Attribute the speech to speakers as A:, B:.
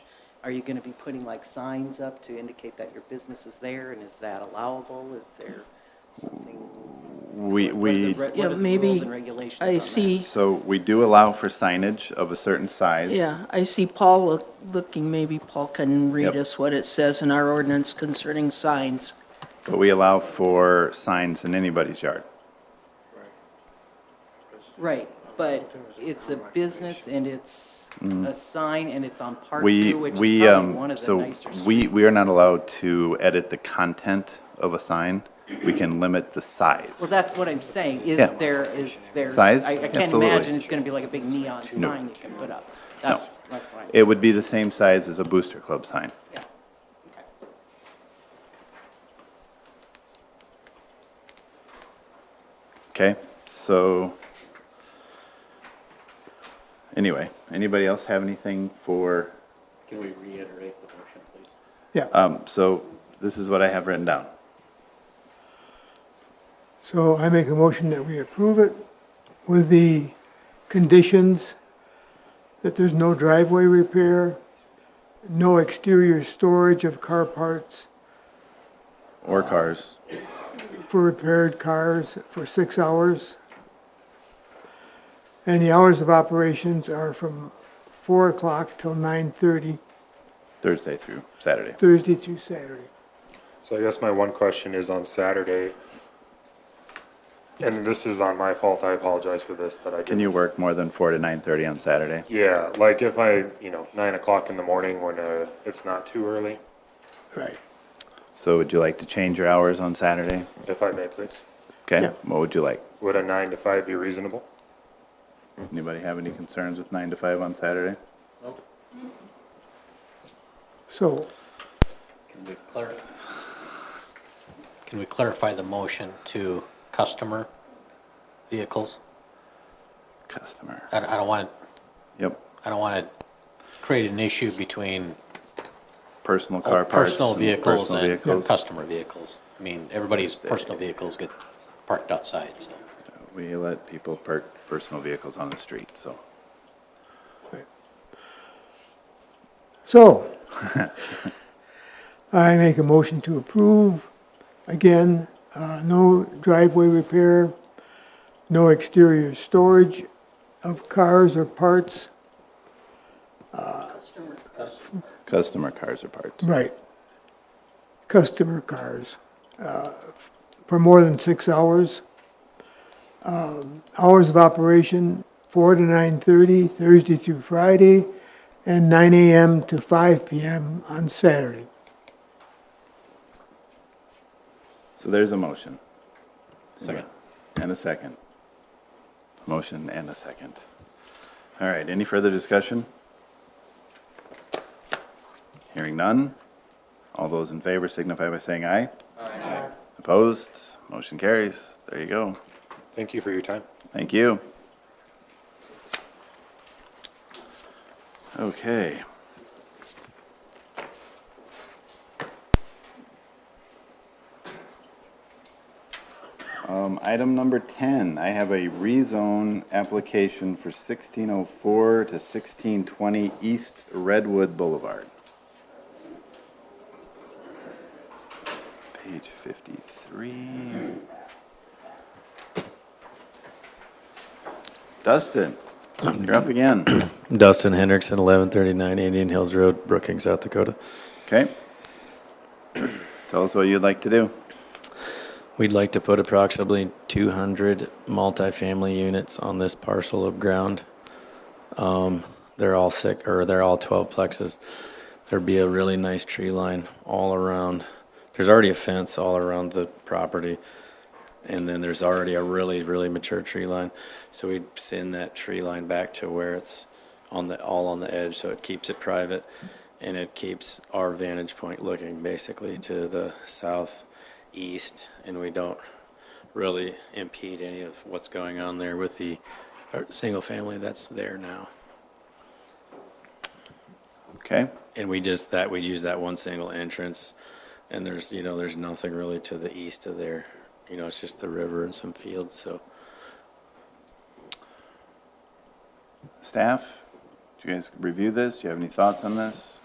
A: Are you going to be putting like signs up to indicate that your business is there, and is that allowable? Is there something?
B: We,
A: what are the re-
B: we,
A: what
C: Yeah,
A: are the
C: maybe
A: rules and regulations
C: I
A: on that?
C: see.
B: so we do allow for signage of a certain size.
C: Yeah, I see Paul look- looking, maybe Paul can read
B: Yep.
C: us what it says in our ordinance concerning signs.
B: But we allow for signs in anybody's yard.
A: Right, but it's a business and it's a sign and it's on Park
B: Mm-hmm. We,
A: View, which is
B: we,
A: probably one
B: um,
A: of the
B: so
A: nicer
B: we, we
A: streets.
B: are not allowed to edit the content of a sign. We can limit the size.
A: Well, that's what I'm saying, is
B: Yeah.
A: there, is there?
B: Size?
A: I I can't
B: Absolutely.
A: imagine it's going to be like a big neon sign you can put up. That's, that's what I'm.
B: It would be the same size as a Booster Club sign.
A: Yeah.
B: Okay, so, anyway, anybody else have anything for,
D: Can we reiterate the motion, please?
E: Yeah,
B: um, so this is what I have written down.
E: so I make a motion that we approve it with the conditions that there's no driveway repair, no exterior storage of car parts
B: Or cars,
E: for repaired cars for six hours. And the hours of operations are from four o'clock till nine-thirty,
B: Thursday through Saturday.
E: Thursday through Saturday.
F: So I guess my one question is on Saturday, and this is on my fault, I apologize for this, that I
B: Can
F: didn't.
B: you work more than four to nine-thirty on Saturday?
F: Yeah, like if I, you know, nine o'clock in the morning when, uh, it's not too early,
E: Right.
B: So would you like to change your hours on Saturday?
F: if I may please,
B: Okay,
E: Yeah.
B: what would you like?
F: would a nine to five be reasonable?
B: Anybody have any concerns with nine to five on Saturday?
E: So
D: Can we clarify? Can we clarify the motion to customer vehicles?
B: Customer,
D: I, I don't want,
B: yep,
D: I don't want to create an issue between
B: personal car parts.
D: Oh, personal
B: and
D: vehicles
B: personal
D: and
B: vehicles.
D: customer vehicles. I mean, everybody's personal vehicles get parked outside, so.
B: We let people park personal vehicles on the street, so.
E: So, I make a motion to approve, again, uh, no driveway repair, no exterior storage of cars or parts.
B: Customer cars or parts.
E: Right. Customer cars, uh, for more than six hours. Um, Hours of operation, four to nine-thirty, Thursday through Friday, and nine AM to five PM on Saturday.
B: So there's a motion. Second. And a second. Motion and a second. All right, any further discussion? Hearing none. All those in favor signify by saying aye. Aye. Opposed? Motion carries. There you go.
F: Thank you for your time.
B: Thank you. Okay. Um, item number ten, I have a rezone application for sixteen oh four to sixteen twenty East Redwood Boulevard. Page fifty-three. Dustin, you're up again.
G: Dustin Hendrickson, 1139 Indian Hills Road, Brookings, South Dakota.
B: Okay. Tell us what you'd like to do.
G: We'd like to put approximately 200 multifamily units on this parcel of ground. Um, They're all six, or they're all 12 plexes. There'd be a really nice tree line all around. There's already a fence all around the property, and then there's already a really, really mature tree line. So we'd thin that tree line back to where it's on the, all on the edge, so it keeps it private, and it keeps our vantage point looking basically to the southeast, and we don't really impede any of what's going on there with the, uh single family that's there now.
B: Okay.
G: And we just, that, we use that one single entrance, and there's, you know, there's nothing really to the east of there. You know, it's just the river and some fields, so.
B: Staff, do you guys review this? Do you have any thoughts on this?